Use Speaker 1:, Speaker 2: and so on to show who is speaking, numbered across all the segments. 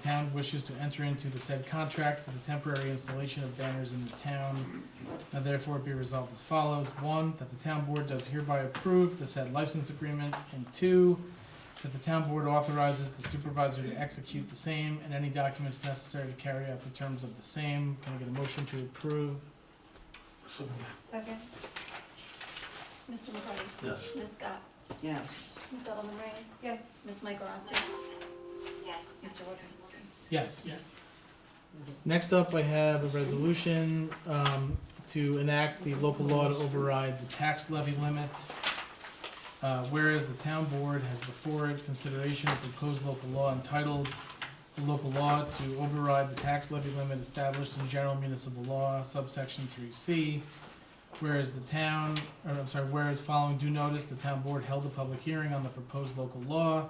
Speaker 1: town wishes to enter into the said contract for the temporary installation of banners in the town. Now therefore be resolved as follows. One, that the town board does hereby approve the said license agreement. And two, that the town board authorizes the supervisor to execute the same and any documents necessary to carry out the terms of the same. Can I get a motion to approve?
Speaker 2: So
Speaker 3: Second?
Speaker 4: Mr. McCarty?
Speaker 2: Yes.
Speaker 4: Ms. Scott?
Speaker 5: yes,
Speaker 4: Ms. Edelman Reyes?
Speaker 3: Yes.
Speaker 4: Ms. Mike Rosati?
Speaker 6: yes,
Speaker 4: Mr. Wojciechowski?
Speaker 1: Yes.
Speaker 2: Yeah.
Speaker 1: Next up, I have a resolution um, to enact the local law to override the tax levy limit. Uh, Whereas the town board has before it consideration of proposed local law entitled "The Local Law to Override the Tax Levy Limit Established in General Municipal Law subsection three C." Whereas the town, or I'm sorry, whereas following due notice, the town board held a public hearing on the proposed local law.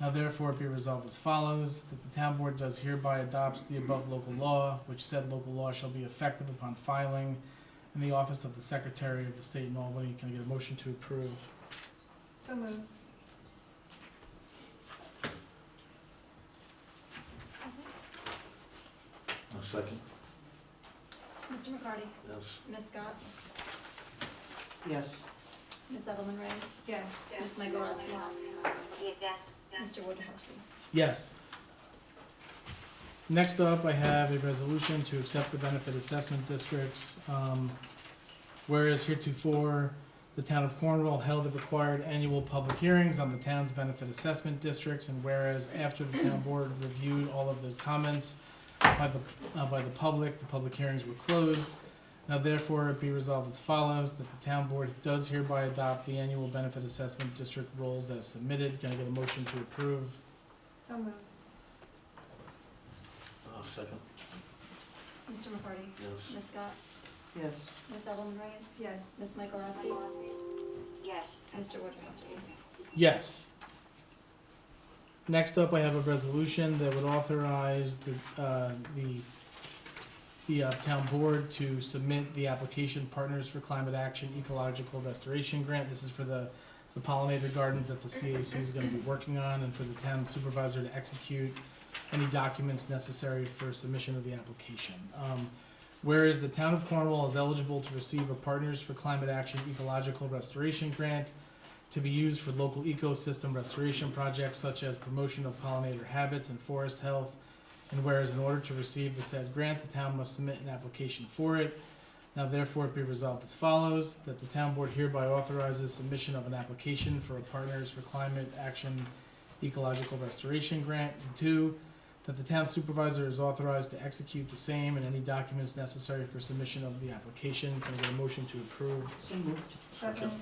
Speaker 1: Now therefore be resolved as follows, that the town board does hereby adopts the above local law, which said local law shall be effective upon filing in the office of the Secretary of the State in Albany. Can I get a motion to approve?
Speaker 3: So moved. Mm-hmm.
Speaker 2: A second,
Speaker 4: Mr. McCarty?
Speaker 2: yes.
Speaker 4: Ms. Scott?
Speaker 5: yes,
Speaker 4: Ms. Edelman Reyes?
Speaker 3: Yes.
Speaker 4: Ms. Mike Rosati?
Speaker 6: yes,
Speaker 4: Mr. Wojciechowski?
Speaker 1: Yes. Next up, I have a resolution to accept the benefit assessment districts. Um, Whereas heretofore, the town of Cornwall held the required annual public hearings on the town's benefit assessment districts. And whereas after the town board reviewed all of the comments by the, uh, by the public, the public hearings were closed. Now therefore, it be resolved as follows, that the town board does hereby adopt the annual benefit assessment district rules as submitted. Can I get a motion to approve?
Speaker 3: So moved.
Speaker 2: A second,
Speaker 4: Mr. McCarty?
Speaker 2: yes.
Speaker 4: Ms. Scott?
Speaker 5: yes,
Speaker 4: Ms. Edelman Reyes?
Speaker 3: Yes.
Speaker 4: Ms. Mike Rosati?
Speaker 6: yes,
Speaker 4: Mr. Wojciechowski?
Speaker 1: Yes. Next up, I have a resolution that would authorize the, uh, the, the uh, town board to submit the application Partners for Climate Action Ecological Restoration Grant. This is for the, the pollinator gardens that the CAC is gonna be working on and for the town supervisor to execute any documents necessary for submission of the application. Um, whereas the town of Cornwall is eligible to receive a Partners for Climate Action Ecological Restoration Grant to be used for local ecosystem restoration projects such as promotion of pollinator habits and forest health. And whereas in order to receive the said grant, the town must submit an application for it. Now therefore be resolved as follows, that the town board hereby authorizes submission of an application for a Partners for Climate Action Ecological Restoration Grant. And two, that the town supervisor is authorized to execute the same and any documents necessary for submission of the application. Can I get a motion to approve?
Speaker 5: so moved,
Speaker 3: Second?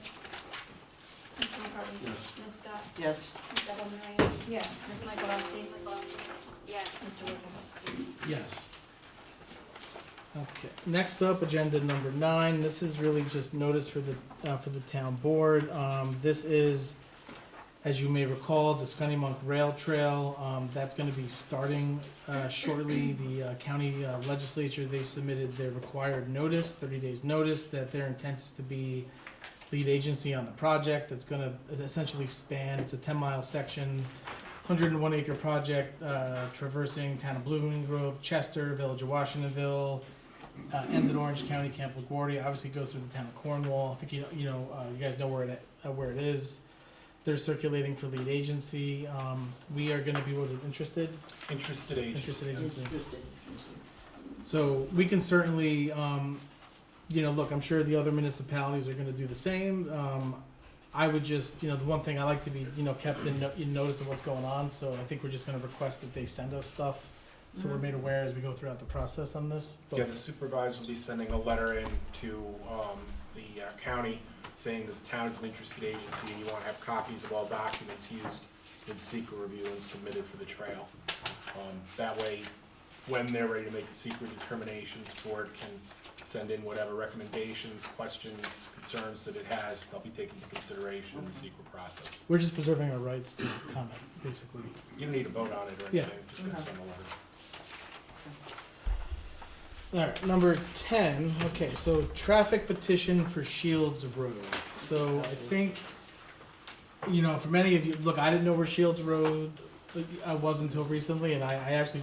Speaker 4: Mr. McCarty?
Speaker 2: Yes.
Speaker 4: Ms. Scott?
Speaker 5: yes,
Speaker 4: Ms. Edelman Reyes?
Speaker 3: Yes.
Speaker 4: Ms. Mike Rosati?
Speaker 6: yes,
Speaker 4: Mr. Wojciechowski?
Speaker 1: Yes. Okay, next up, agenda number nine, this is really just notice for the, uh, for the town board, um, this is, as you may recall, the Scunny Monk Rail Trail, um, that's gonna be starting, uh, shortly, the, uh, county uh, legislature, they submitted their required notice, thirty days notice, that their intent is to be lead agency on the project, that's gonna essentially span, it's a ten mile section, 101 acre project uh, traversing town of Blooming Grove, Chester, Village of Washingtonville, uh, ends at Orange County, Camp LaGuardia. Obviously goes through the town of Cornwall. I think you you know uh, you guys know where it uh, where it is. They're circulating for lead agency. Um, we are going to be was it interested
Speaker 2: Interested agent.
Speaker 1: interested agency.
Speaker 5: interesting,
Speaker 1: So we can certainly, um, you know, look, I'm sure the other municipalities are gonna do the same. Um, I would just, you know, the one thing I like to be, you know, kept in, no- in notice of what's going on, so I think we're just gonna request that they send us stuff. So we're made aware as we go throughout the process on this. but-
Speaker 7: Yeah, the supervisor will be sending a letter in to um, the uh, county saying that the town is an interested agency and you want to have copies of all documents used in secret review and submitted for the trail. Um, That way, when they're ready to make the secret determinations, board can send in whatever recommendations, questions, concerns that it has, they'll be taken into consideration in the secret process.
Speaker 1: We're just preserving our rights to comment, basically.
Speaker 7: You don't need to vote on it or
Speaker 1: Yeah.
Speaker 7: anything, just gonna
Speaker 5: Okay.
Speaker 7: send a letter.
Speaker 1: All right, number ten. Okay, so traffic petition for Shields Road. So I think, you know, for many of you, look, I didn't know where Shields Road. I was until uh, recently, and I, I actually